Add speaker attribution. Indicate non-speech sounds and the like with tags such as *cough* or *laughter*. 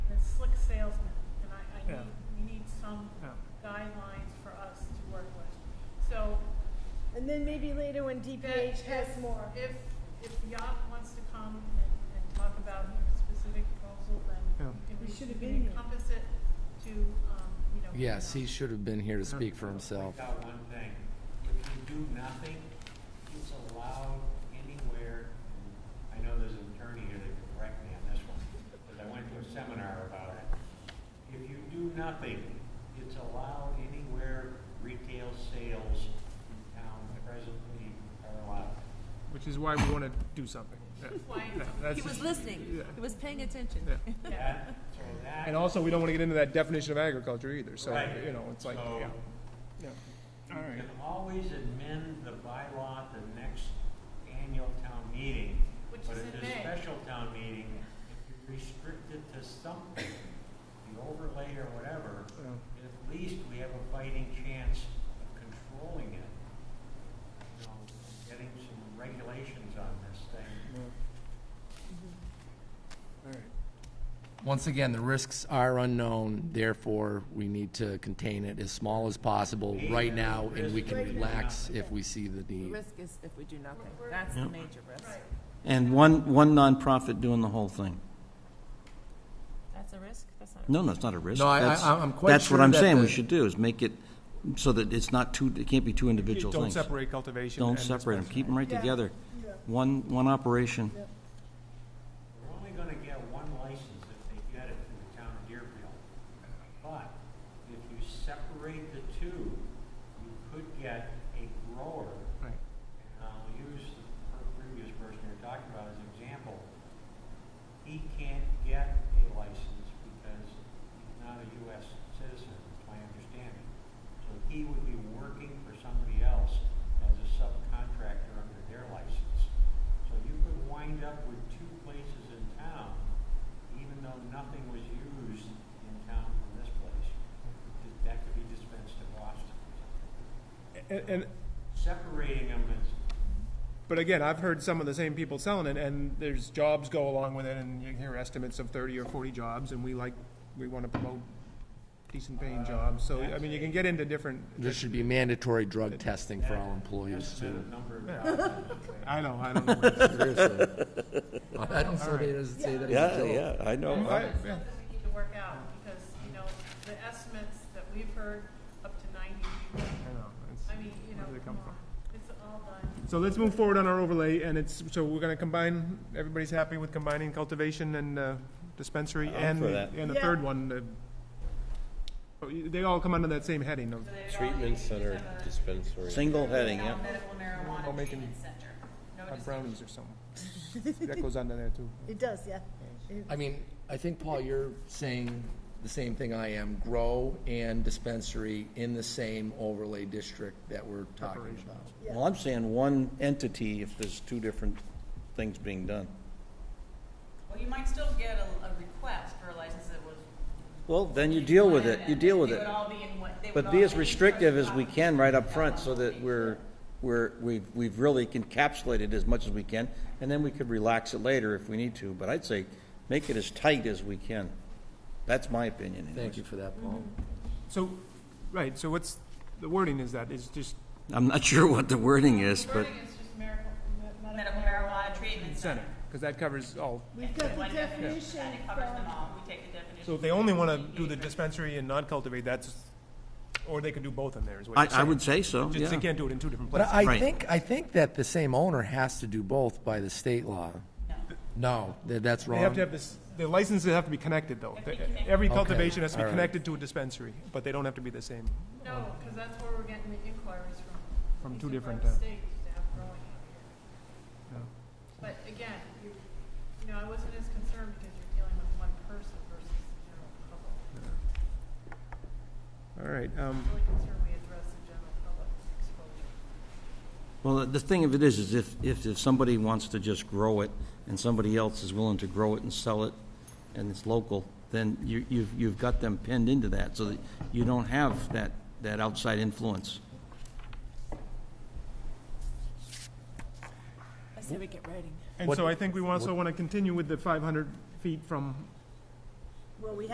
Speaker 1: slick salesman, and I, I
Speaker 2: Yeah.
Speaker 1: need, we need some
Speaker 2: Yeah.
Speaker 1: guidelines for us to work with. So
Speaker 3: And then maybe later when
Speaker 1: that
Speaker 3: DPH
Speaker 1: if-
Speaker 3: has more.
Speaker 1: If, if Yacht wants to come and, and talk about a specific proposal,
Speaker 2: Yeah.
Speaker 1: then can
Speaker 3: We
Speaker 1: we
Speaker 3: should
Speaker 1: should
Speaker 3: have been here.
Speaker 1: encompass it to, um, you know.
Speaker 4: Yes,
Speaker 1: you
Speaker 4: he
Speaker 1: know.
Speaker 4: should have been here to speak for himself.
Speaker 2: uh,
Speaker 5: Point out one thing, if you do nothing, it's allowed anywhere, I know there's an attorney here that can correct me on this one, because I went to a seminar about it. If you do nothing, it's allowed anywhere retail sales in town presently are allowed.
Speaker 2: Which is why we want to do something. Yeah.
Speaker 1: That's why
Speaker 2: Yeah, that's
Speaker 6: He was
Speaker 2: just-
Speaker 6: listening.
Speaker 2: yeah.
Speaker 6: He was paying attention.
Speaker 2: Yeah.
Speaker 1: Yeah.
Speaker 5: That, so that.
Speaker 2: And also, we don't want to get into that definition of agriculture either, so,
Speaker 5: Right.
Speaker 2: you know, it's like,
Speaker 5: So-
Speaker 2: yeah. yeah. All
Speaker 5: You
Speaker 2: right.
Speaker 5: can always amend the bylaw at the next annual town meeting.
Speaker 1: Which is in
Speaker 5: But
Speaker 1: May.
Speaker 5: at this special town meeting, if you restrict it to something, the overlay or whatever,
Speaker 2: Yeah.
Speaker 5: at least we have a fighting chance of controlling it. You know, getting some regulations on this thing.
Speaker 2: Yeah. All right.
Speaker 4: Once again, the risks are unknown, therefore, we need to contain it as small as possible right now, and we can relax if we see the
Speaker 6: The
Speaker 4: need.
Speaker 6: risk is if we do nothing. That's the major risk.
Speaker 1: Right.
Speaker 7: And one, one nonprofit doing the whole thing.
Speaker 6: That's a risk? That's not a risk.
Speaker 7: No, no, it's not a risk.
Speaker 4: No, I- I-
Speaker 7: That's-
Speaker 4: I'm quite
Speaker 7: That's what
Speaker 4: sure
Speaker 7: I'm
Speaker 4: that
Speaker 7: saying we
Speaker 4: the-
Speaker 7: should do, is make it so that it's not two, it can't be two individual
Speaker 2: Don't
Speaker 7: things.
Speaker 2: separate cultivation.
Speaker 7: Don't
Speaker 2: and
Speaker 7: separate them,
Speaker 2: dispensary.
Speaker 7: keep them right
Speaker 3: Yeah.
Speaker 7: together.
Speaker 3: Yeah.
Speaker 7: One, one operation.
Speaker 5: We're only gonna get one license if they get it through the town of Deerfield. But if you separate the two, you could get a grower,
Speaker 2: Right.
Speaker 5: and I'll use the per- previous person you're talking about as an example. He can't get a license because he's not a US citizen, is my understanding. So he would be working for somebody else as a subcontractor under their license. So you could wind up with two places in town, even though nothing was used in town from this place. That- That could be dispensed to Boston.
Speaker 2: And, and,
Speaker 5: Separating them is,
Speaker 2: but again, I've heard some of the same people selling it, and there's jobs go along with it, and you hear estimates of thirty or forty jobs, and we like, we want to promote decent paying jobs, so, I mean, you can get into different.
Speaker 4: There should be mandatory drug testing for all employees,
Speaker 5: that's a
Speaker 4: too.
Speaker 5: number of jobs.
Speaker 2: I know, I don't know. *laughs*
Speaker 4: Seriously. I don't say that, it doesn't say that it's a joke.
Speaker 7: I
Speaker 2: I-
Speaker 7: know.
Speaker 2: yeah.
Speaker 1: that we need to work out, because, you know, the estimates that we've heard, up to ninety,
Speaker 2: I know, it's-
Speaker 1: I mean, you know,
Speaker 2: Where do they
Speaker 1: come
Speaker 2: come
Speaker 1: on, it's all done.
Speaker 2: So let's move forward on our overlay, and it's, so we're gonna combine, everybody's happy with combining cultivation and uh, dispensary
Speaker 7: I'm
Speaker 2: and,
Speaker 7: for that.
Speaker 2: and the
Speaker 3: Yeah.
Speaker 2: third one, the, oh, you- they all come under that same heading of
Speaker 8: Treatment center dispensary.
Speaker 7: Single heading, yeah.
Speaker 8: Medical
Speaker 2: I'll
Speaker 8: marijuana
Speaker 2: make
Speaker 8: treatment
Speaker 2: an-
Speaker 8: center. No
Speaker 2: uh,
Speaker 8: dis-
Speaker 2: brownies or something. That goes under there too.
Speaker 3: It does, yeah.
Speaker 4: I mean, I think, Paul, you're saying the same thing I am, grow and dispensary in the same overlay district that we're talking about.
Speaker 7: Well, I'm saying one entity if there's two different things being done.
Speaker 8: Well, you might still get a, a request for a license that was.
Speaker 7: Well, then you deal with it, you deal with
Speaker 8: They
Speaker 7: it.
Speaker 8: would all be in one- they would
Speaker 7: But
Speaker 8: all
Speaker 7: be as
Speaker 8: in one
Speaker 7: restrictive as we
Speaker 8: spot.
Speaker 7: can right up front so that we're, we're, we've, we've really encapsulated as much as we can. And then we could relax it later if we need to, but I'd say make it as tight as we can. That's my opinion anyways.
Speaker 4: Thank you for that, Paul.
Speaker 2: So, right, so what's, the wording is that, it's just,
Speaker 7: I'm not *laughs* sure what the wording is, but
Speaker 1: Wording is just miracle, me- medical
Speaker 8: Medical marijuana treatment center.
Speaker 2: because that covers all.
Speaker 3: We've got the
Speaker 8: One definition,
Speaker 3: definition
Speaker 8: and it covers them
Speaker 3: from,
Speaker 8: all. We take the definition.
Speaker 2: So if they only wanna
Speaker 8: from
Speaker 2: do the
Speaker 8: DPH.
Speaker 2: dispensary and not cultivate, that's, or they could do both in there, is what
Speaker 7: I,
Speaker 2: you're saying.
Speaker 7: I would say so,
Speaker 2: Just they
Speaker 7: yeah.
Speaker 2: can't do it in two different
Speaker 4: But
Speaker 2: places.
Speaker 4: I
Speaker 7: Right.
Speaker 4: think, I think that the same owner has to do both by the state law. No, tha- that's
Speaker 2: They have to
Speaker 4: wrong.
Speaker 2: have this, the licenses have to be connected though.
Speaker 8: Have to be connected.
Speaker 2: Every
Speaker 4: Okay,
Speaker 2: cultivation has to be
Speaker 4: all right.
Speaker 2: connected to a dispensary, but they don't have to be the same.
Speaker 1: No, because that's where we're getting the inquiries from.
Speaker 2: From
Speaker 1: These
Speaker 2: two
Speaker 1: are
Speaker 2: different,
Speaker 1: the
Speaker 2: uh,
Speaker 1: States to have growing out here. But again, you, you know, I wasn't as concerned because you're dealing with one person versus the general public.
Speaker 2: All right, um,
Speaker 1: I'm really concerned we address the general public's exposure.
Speaker 7: Well, the thing of it is, is if, if, if somebody wants to just grow it and somebody else is willing to grow it and sell it and it's local, then you, you've, you've got them pinned into that so that you don't have that, that outside influence.
Speaker 6: I say we get writing.
Speaker 2: and so I think we also want to continue with the five hundred feet from
Speaker 3: well, we